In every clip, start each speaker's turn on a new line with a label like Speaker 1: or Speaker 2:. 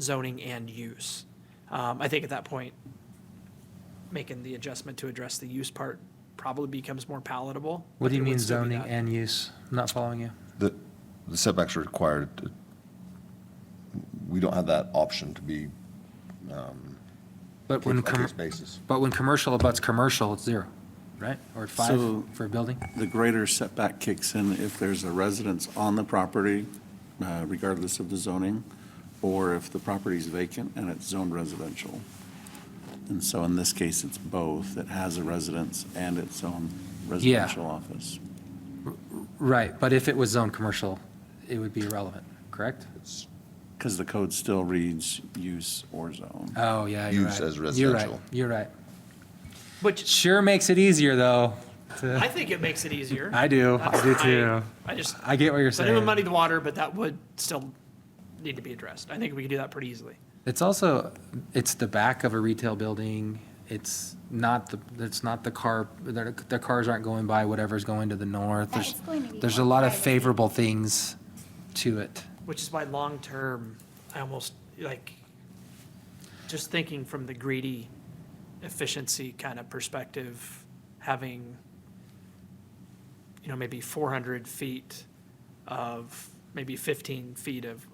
Speaker 1: zoning and use. Um, I think at that point, making the adjustment to address the use part probably becomes more palatable.
Speaker 2: What do
Speaker 1: but it
Speaker 2: you
Speaker 1: would
Speaker 2: mean
Speaker 1: still be
Speaker 2: zoning
Speaker 1: that-
Speaker 2: and use? I'm not following you.
Speaker 3: The the setbacks are required, to- we don't have that option to be
Speaker 2: But when, com-
Speaker 3: case-by-case basis.
Speaker 2: but when commercial abuts commercial, it's zero, right? Or five
Speaker 4: So-
Speaker 2: for a building?
Speaker 4: The greater setback kicks in if there's a residence on the property, uh, regardless of the zoning, or if the property's vacant and it's zoned residential. And so in this case, it's both. It has a residence and its own residential office.
Speaker 2: Right, but if it was zoned commercial, it would be irrelevant, correct?
Speaker 4: Because the code still reads use or zone.
Speaker 2: Oh, yeah, you're right.
Speaker 3: Use as
Speaker 2: You're right,
Speaker 3: residential.
Speaker 2: You're right.
Speaker 1: Which
Speaker 2: Sure makes it easier, though. to-
Speaker 1: I think it makes it easier.
Speaker 2: I do, I do
Speaker 1: That's-
Speaker 2: too.
Speaker 1: I just,
Speaker 2: I get what you're
Speaker 1: I didn't
Speaker 2: saying.
Speaker 1: muddy the water, but that would still need to be addressed. I think we could do that pretty easily.
Speaker 2: It's also, it's the back of a retail building. It's not the, it's not the car, their, their cars aren't going by whatever's going to the north.
Speaker 5: Yeah,
Speaker 2: There's,
Speaker 5: it's going to be
Speaker 2: there's a
Speaker 5: more
Speaker 2: lot of
Speaker 5: privacy.
Speaker 2: favorable things to it.
Speaker 1: Which is why long-term, I almost, like, just thinking from the greedy efficiency kind of perspective, having, you know, maybe four hundred feet of, maybe fifteen feet of,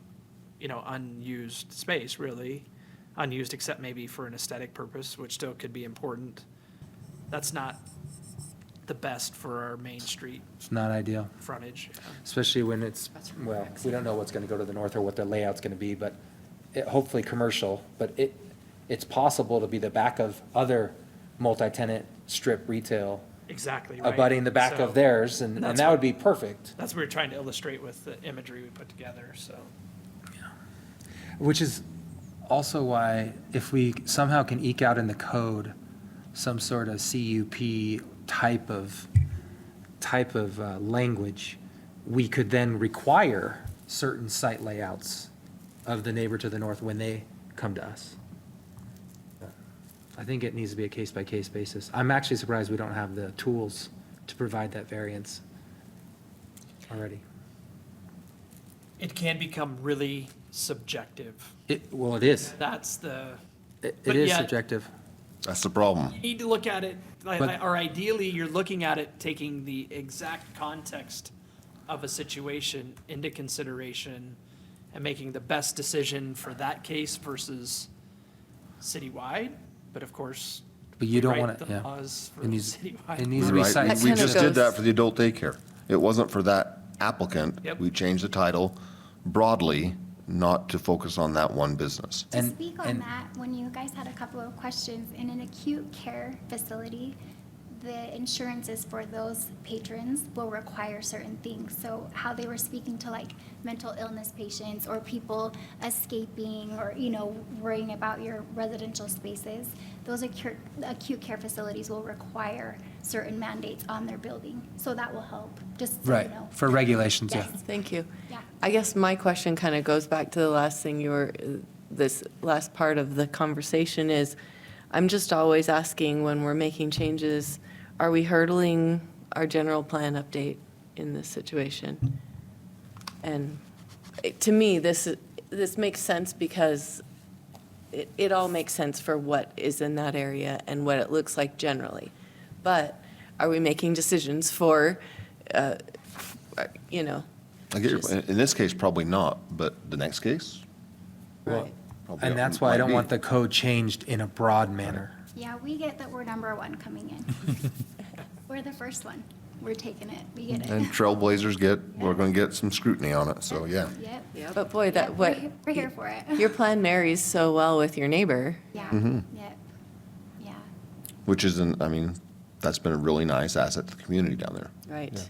Speaker 1: you know, unused space, really. Unused except maybe for an aesthetic purpose, which still could be important. That's not the best for our main street
Speaker 2: It's not ideal,
Speaker 1: frontage. yeah.
Speaker 2: especially when it's, well, we don't know what's gonna go to the north or what their layout's gonna be, but it, hopefully commercial, but it, it's possible to be the back of other multi-tenant strip retail
Speaker 1: Exactly, right?
Speaker 2: abutting the back
Speaker 1: So-
Speaker 2: of theirs, and, and
Speaker 1: That's
Speaker 2: that
Speaker 1: what-
Speaker 2: would be perfect.
Speaker 1: That's what we we're trying to illustrate with the imagery we put together, so.
Speaker 2: Which is also why if we somehow can eke out in the code some sort of CUP type of, type of uh, language, we could then require certain site layouts of the neighbor to the north when they come to us. I think it needs to be a case-by-case basis. I'm actually surprised we don't have the tools to provide that variance already.
Speaker 1: It can become really subjective.
Speaker 2: It, well, it is.
Speaker 1: That's the,
Speaker 2: It
Speaker 1: But
Speaker 2: it is
Speaker 1: yet-
Speaker 2: subjective.
Speaker 3: That's the problem.
Speaker 1: you need to look at it, like-
Speaker 2: But-
Speaker 1: or ideally, you're looking at it taking the exact context of a situation into consideration and making the best decision for that case versus citywide. But of course,
Speaker 2: But you don't
Speaker 1: write
Speaker 2: want to,
Speaker 1: the
Speaker 2: yeah.
Speaker 1: laws for
Speaker 2: It needs,
Speaker 1: citywide.
Speaker 2: it needs to be
Speaker 3: Right,
Speaker 2: site
Speaker 6: That
Speaker 3: we
Speaker 6: kind of
Speaker 3: just did that
Speaker 6: goes-
Speaker 3: for the adult daycare. It wasn't for that applicant.
Speaker 1: Yep.
Speaker 3: We changed the title broadly, not to focus on that one business.
Speaker 5: To
Speaker 2: And-
Speaker 5: speak
Speaker 2: and-
Speaker 5: on that, when you guys had a couple of questions, in an acute care facility, the insurances for those patrons will require certain things. So how they were speaking to like mental illness patients or people escaping or, you know, worrying about your residential spaces, those acute, acute care facilities will require certain mandates on their building. So that will help, just so you
Speaker 2: Right,
Speaker 5: know.
Speaker 2: for regulations, yeah.
Speaker 5: Yes.
Speaker 6: Thank you.
Speaker 5: Yeah.
Speaker 6: I guess my question kind of goes back to the last thing you were, this last part of the conversation is, I'm just always asking when we're making changes, are we hurdling our general plan update in this situation? And it- to me, this, is- this makes sense because it, it all makes sense for what is in that area and what it looks like generally. But are we making decisions for, uh, you know,
Speaker 3: I get your,
Speaker 6: Just-
Speaker 3: in in this case, probably not, but the next case?
Speaker 6: Right.
Speaker 3: probably
Speaker 2: And that's why I
Speaker 3: might
Speaker 2: don't
Speaker 3: be.
Speaker 2: want the code changed in a broad manner.
Speaker 5: Yeah, we get that we're number one coming in. We're the first one. We're taking it. We get it.
Speaker 3: And trailblazers get, we're gonna get some scrutiny on it, so yeah.
Speaker 5: Yep.
Speaker 6: But boy, that
Speaker 5: Yep,
Speaker 6: what
Speaker 5: we're he- We're here for it.
Speaker 6: your plan marries so well with your neighbor.
Speaker 5: Yeah,
Speaker 3: Mm-hmm.
Speaker 5: yep, yeah,
Speaker 3: Which isn't, I mean, that's been a really nice asset to the community down there.
Speaker 6: Right.
Speaker 5: yeah.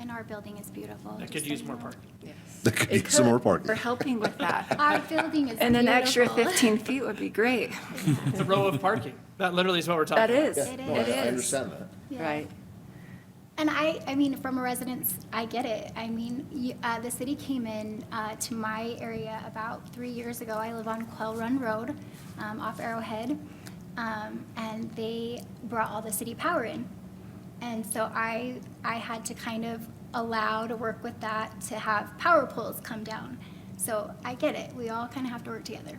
Speaker 5: And our building is beautiful.
Speaker 1: That
Speaker 5: just
Speaker 1: could
Speaker 5: so
Speaker 1: use
Speaker 5: you
Speaker 1: more
Speaker 5: know.
Speaker 1: parking.
Speaker 3: That could
Speaker 7: It
Speaker 3: be some more
Speaker 7: could. We're
Speaker 3: parking.
Speaker 7: helping with that.
Speaker 5: Our building is beautiful.
Speaker 7: And an extra 15 feet would be great.
Speaker 1: It's a row of parking. That literally is what we're talking about.
Speaker 7: That is,
Speaker 5: It
Speaker 7: it
Speaker 5: is. I
Speaker 7: is.
Speaker 3: that.
Speaker 5: Yeah.
Speaker 6: Right.
Speaker 5: And I, I mean, from a residence, I get it. I mean, you, uh, the city came in, uh, to my area about three years ago. I live on Quell Run Road, um, off Arrowhead. Um, and they brought all the city power in. And so I, I had to kind of allow to work with that to have power poles come down. So I get it. We all kind of have to work together.